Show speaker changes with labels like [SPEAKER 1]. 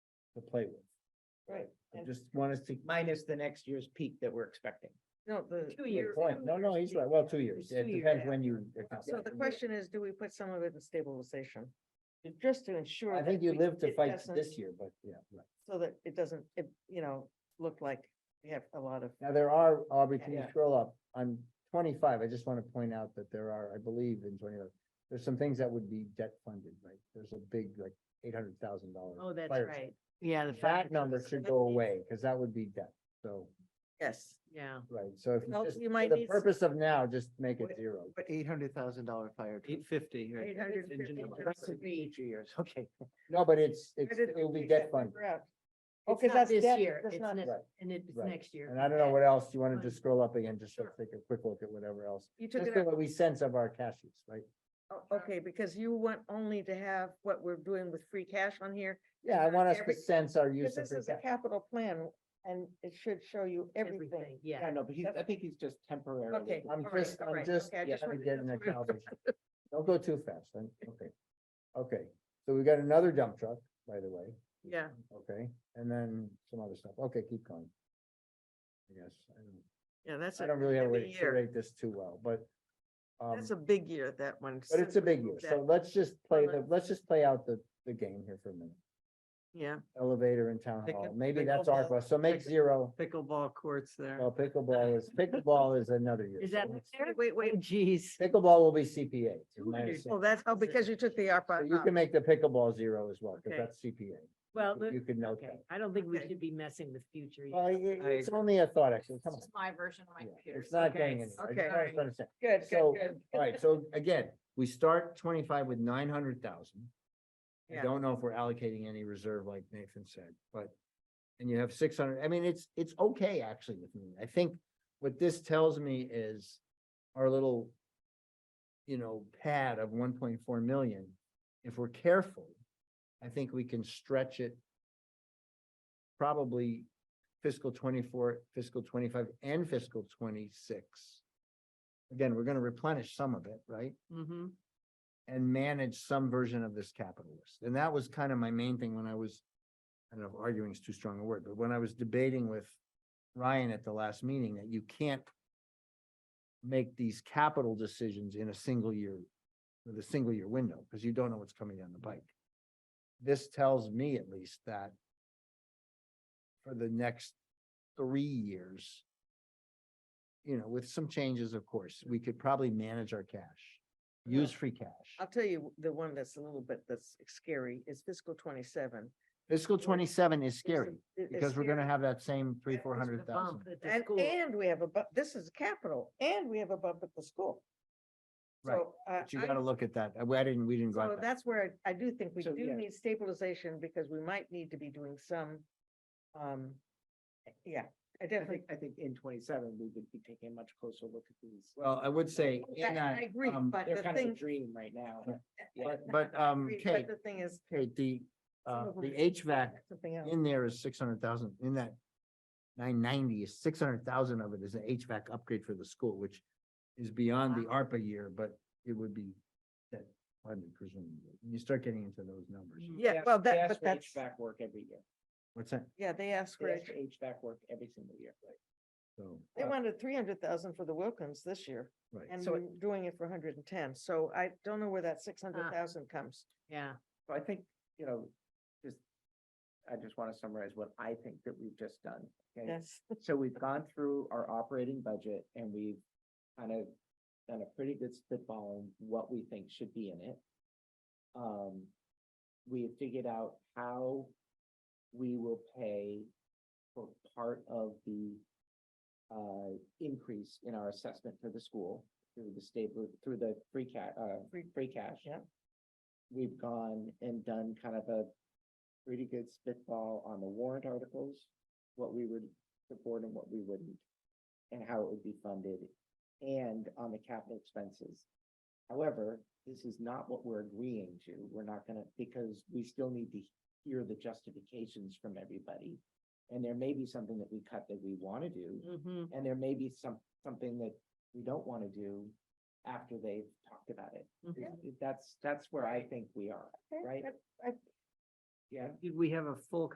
[SPEAKER 1] to play with.
[SPEAKER 2] Right.
[SPEAKER 1] I
[SPEAKER 2] And
[SPEAKER 1] just want us to.
[SPEAKER 2] minus the next year's peak that we're expecting.
[SPEAKER 3] No, the,
[SPEAKER 4] Two
[SPEAKER 1] good
[SPEAKER 4] years.
[SPEAKER 1] Point. No, no, he's right. Well, two years.
[SPEAKER 3] Two
[SPEAKER 1] It
[SPEAKER 3] years.
[SPEAKER 1] depends when you.
[SPEAKER 3] so the question is, do we put some of it in stabilization? Just to ensure.
[SPEAKER 1] I
[SPEAKER 3] that
[SPEAKER 1] think you
[SPEAKER 3] we-
[SPEAKER 1] live to
[SPEAKER 3] it
[SPEAKER 1] fight
[SPEAKER 3] doesn't-
[SPEAKER 1] this year, but yeah, right.
[SPEAKER 3] So that it doesn't, it, you know, look like we have a lot of,
[SPEAKER 1] Now, there are, Aubrey, can you
[SPEAKER 3] Yeah.
[SPEAKER 1] scroll up? On twenty-five, I just want to point out that there are, I believe in twenty-five, there's some things that would be debt funded, right? There's a big, like, eight hundred thousand dollars.
[SPEAKER 4] Oh, that's
[SPEAKER 1] fire
[SPEAKER 4] right.
[SPEAKER 2] Yeah, the
[SPEAKER 1] That number should go away, because that would be debt, so,
[SPEAKER 3] yes,
[SPEAKER 4] Yeah.
[SPEAKER 1] right, so if, you
[SPEAKER 3] Well,
[SPEAKER 1] just-
[SPEAKER 3] you
[SPEAKER 1] for
[SPEAKER 3] might
[SPEAKER 1] the
[SPEAKER 3] need s-
[SPEAKER 1] purpose of now, just make it
[SPEAKER 3] Wait,
[SPEAKER 1] zero.
[SPEAKER 5] But eight hundred thousand dollar fire.
[SPEAKER 2] Eight fifty.
[SPEAKER 3] eight hundred fifty.
[SPEAKER 5] Each years, okay.
[SPEAKER 1] No, but it's, it's,
[SPEAKER 3] Where did
[SPEAKER 1] it'll
[SPEAKER 3] we
[SPEAKER 1] be
[SPEAKER 3] get
[SPEAKER 1] debt
[SPEAKER 3] that
[SPEAKER 1] funded,
[SPEAKER 3] number out? Oh,
[SPEAKER 4] It's
[SPEAKER 3] 'cause
[SPEAKER 4] not
[SPEAKER 3] that's
[SPEAKER 4] this
[SPEAKER 3] debt,
[SPEAKER 4] year,
[SPEAKER 3] that's
[SPEAKER 4] it's
[SPEAKER 3] not-
[SPEAKER 4] next,
[SPEAKER 1] Right,
[SPEAKER 4] and it's
[SPEAKER 1] right.
[SPEAKER 4] next year.
[SPEAKER 1] and I don't know what else, you want to
[SPEAKER 4] Fine.
[SPEAKER 1] just scroll up again, just to
[SPEAKER 4] Sure.
[SPEAKER 1] take a quick look at whatever else.
[SPEAKER 3] You took
[SPEAKER 1] Just
[SPEAKER 3] it
[SPEAKER 1] so
[SPEAKER 3] out,
[SPEAKER 1] that we sense of our cash use, right?
[SPEAKER 3] Oh, okay, because you want only to have what we're doing with free cash on here.
[SPEAKER 1] Yeah, I want us to
[SPEAKER 3] Every-
[SPEAKER 1] sense our use
[SPEAKER 3] Because
[SPEAKER 1] of
[SPEAKER 3] this
[SPEAKER 1] free
[SPEAKER 3] is a
[SPEAKER 1] cash.
[SPEAKER 3] capital plan and it should show you everything.
[SPEAKER 4] Everything, yeah.
[SPEAKER 1] know, but he's, I think he's just temporarily.
[SPEAKER 3] Okay,
[SPEAKER 1] I'm
[SPEAKER 3] all right,
[SPEAKER 1] just,
[SPEAKER 3] all
[SPEAKER 1] I'm
[SPEAKER 3] right,
[SPEAKER 1] just,
[SPEAKER 3] okay, I
[SPEAKER 1] yeah,
[SPEAKER 3] just
[SPEAKER 1] I'm
[SPEAKER 3] wanted-
[SPEAKER 1] getting a
[SPEAKER 3] that's what I-
[SPEAKER 1] calibration. Don't go too fast, then, okay. Okay, so we got another dump truck, by the way,
[SPEAKER 3] Yeah,
[SPEAKER 1] okay, and then some other stuff, okay, keep going. I guess, I don't,
[SPEAKER 3] yeah, that's
[SPEAKER 1] I
[SPEAKER 3] a,
[SPEAKER 1] don't really have a way
[SPEAKER 3] every
[SPEAKER 1] to
[SPEAKER 3] year.
[SPEAKER 1] curate this too well, but. um,
[SPEAKER 3] that's a big year, that one.
[SPEAKER 1] But it's a big year, so let's just play the,
[SPEAKER 3] Well,
[SPEAKER 1] let's just play out the, the game here for a minute.
[SPEAKER 3] Yeah.
[SPEAKER 1] Elevator and town
[SPEAKER 2] Pick
[SPEAKER 1] hall,
[SPEAKER 2] up
[SPEAKER 1] maybe that's
[SPEAKER 2] pickleball.
[SPEAKER 1] ARPA, so make
[SPEAKER 2] Pick-
[SPEAKER 1] zero,
[SPEAKER 2] Pickleball courts there.
[SPEAKER 1] well, pickleball is, pickleball is another year.
[SPEAKER 4] Is
[SPEAKER 1] so
[SPEAKER 4] that
[SPEAKER 1] let's-
[SPEAKER 4] fair?
[SPEAKER 3] Wait,
[SPEAKER 4] Oh,
[SPEAKER 3] wait,
[SPEAKER 4] geez.
[SPEAKER 1] Pickleball will be CPA. is my
[SPEAKER 4] 200.
[SPEAKER 1] understanding.
[SPEAKER 3] oh, that's, oh, because you took the ARPA
[SPEAKER 1] So You
[SPEAKER 3] out.
[SPEAKER 1] can make the pickleball zero as well,
[SPEAKER 3] Okay.
[SPEAKER 1] because that's CPA.
[SPEAKER 4] Well,
[SPEAKER 1] You
[SPEAKER 4] let-
[SPEAKER 1] could note
[SPEAKER 4] okay,
[SPEAKER 1] that.
[SPEAKER 4] I don't think we
[SPEAKER 3] Okay.
[SPEAKER 4] should be messing with future.
[SPEAKER 1] Well,
[SPEAKER 4] years.
[SPEAKER 1] i- i- it's only a thought, actually, come
[SPEAKER 4] This
[SPEAKER 1] on.
[SPEAKER 4] is my version of my
[SPEAKER 1] Yeah,
[SPEAKER 4] computer.
[SPEAKER 1] It's not
[SPEAKER 4] Okay.
[SPEAKER 1] going anywhere. I just
[SPEAKER 3] Okay.
[SPEAKER 1] want us to understand.
[SPEAKER 3] Good,
[SPEAKER 1] So,
[SPEAKER 3] good, good.
[SPEAKER 1] all right, so again, we start twenty-five with nine hundred thousand. I
[SPEAKER 3] Yeah.
[SPEAKER 1] don't know if we're allocating any reserve like Nathan said, but, and you have six hundred, I mean, it's, it's okay actually with me. I think what this tells me is our little, you know, pad of one point four million, if we're careful, I think we can stretch it probably fiscal twenty-four, fiscal twenty-five, and fiscal twenty-six. Again, we're gonna replenish some of it, right?
[SPEAKER 4] Mm-hmm.
[SPEAKER 1] and manage some version of this capital list. And that was kind of my main thing when I was, I don't know, if arguing is too strong a word, but when I was debating with Ryan at the last meeting, that you can't make these capital decisions in a single year, with a single year window, because you don't know what's coming down the pike. This tells me at least that for the next three years, you know, with some changes, of course, we could probably manage our cash,
[SPEAKER 3] Well,
[SPEAKER 1] use free cash.
[SPEAKER 3] I'll tell you the one that's a little bit, that's scary is fiscal twenty-seven.
[SPEAKER 1] Fiscal
[SPEAKER 3] Or-
[SPEAKER 1] twenty-seven is
[SPEAKER 3] It's a-
[SPEAKER 1] scary,
[SPEAKER 3] it- it's
[SPEAKER 1] because we're gonna
[SPEAKER 3] scary.
[SPEAKER 1] have that same three,
[SPEAKER 3] That
[SPEAKER 1] four hundred thousand.
[SPEAKER 3] And, and we have a, bu- this is capital, and we have a bump at the school.
[SPEAKER 1] Right,
[SPEAKER 3] So, uh,
[SPEAKER 1] But you
[SPEAKER 3] I-
[SPEAKER 1] gotta look at that, I I didn't, we didn't go
[SPEAKER 3] so
[SPEAKER 1] at that.
[SPEAKER 3] that's where I I do think we
[SPEAKER 1] So, yeah.
[SPEAKER 3] do need stabilization, because we might need to be doing some, um, yeah, I definitely,
[SPEAKER 2] I think in twenty-seven, we would be taking a much closer look at these.
[SPEAKER 1] Well, I would say
[SPEAKER 3] I
[SPEAKER 1] in that,
[SPEAKER 3] I agree,
[SPEAKER 1] um,
[SPEAKER 3] but the thing,
[SPEAKER 2] dream right now.
[SPEAKER 1] but, but, um,
[SPEAKER 3] agree, but
[SPEAKER 1] Kate,
[SPEAKER 3] the thing is.
[SPEAKER 1] Kate, the, uh,
[SPEAKER 3] some of them
[SPEAKER 1] the
[SPEAKER 3] are-
[SPEAKER 1] HVAC
[SPEAKER 3] Something else.
[SPEAKER 1] in there is six hundred thousand, in that nine ninety is six hundred thousand of it is an HVAC upgrade for the school, which is beyond the ARPA year, but it would be that, pardon me, presumably. You start getting into those numbers.
[SPEAKER 3] Yeah, well, that, but that's,
[SPEAKER 2] HVAC work every year.
[SPEAKER 1] What's that?
[SPEAKER 3] yeah, they asked for,
[SPEAKER 2] They ask
[SPEAKER 3] it.
[SPEAKER 2] for HVAC work every single year.
[SPEAKER 1] So,
[SPEAKER 3] they
[SPEAKER 1] uh,
[SPEAKER 3] wanted three hundred thousand for the Wilkins this year.
[SPEAKER 1] right.
[SPEAKER 3] And
[SPEAKER 2] So
[SPEAKER 3] we're
[SPEAKER 2] it-
[SPEAKER 3] doing it for hundred and ten, so I don't know where that six
[SPEAKER 1] Ah.
[SPEAKER 3] hundred thousand comes.
[SPEAKER 4] Yeah,
[SPEAKER 2] So I think, you know, just, I just want to summarize what I think that we've just done. okay?
[SPEAKER 3] Yes,
[SPEAKER 2] So we've gone through our operating budget and we've kind of done a pretty good spitballing what we think should be in it. Um, we have figured out how we will pay for part of the uh, increase in our assessment for the school through the stable, through the free ca- uh,
[SPEAKER 3] Free-
[SPEAKER 2] free cash.
[SPEAKER 3] yeah.
[SPEAKER 2] We've gone and done kind of a pretty good spitball on the warrant articles, what we would support and what we wouldn't, and how it would be funded, and on the capital expenses. However, this is not what we're agreeing to. We're not gonna, because we still need to hear the justifications from everybody. And there may be something that we cut that we wanna do,
[SPEAKER 4] mm-hmm,
[SPEAKER 2] and there may be some, something that we don't wanna do after they've talked about it.
[SPEAKER 4] Mhm.
[SPEAKER 2] That's, that's where I think we are,
[SPEAKER 3] Okay,
[SPEAKER 2] right?
[SPEAKER 3] that- I-
[SPEAKER 2] Yeah.
[SPEAKER 6] Did we have a full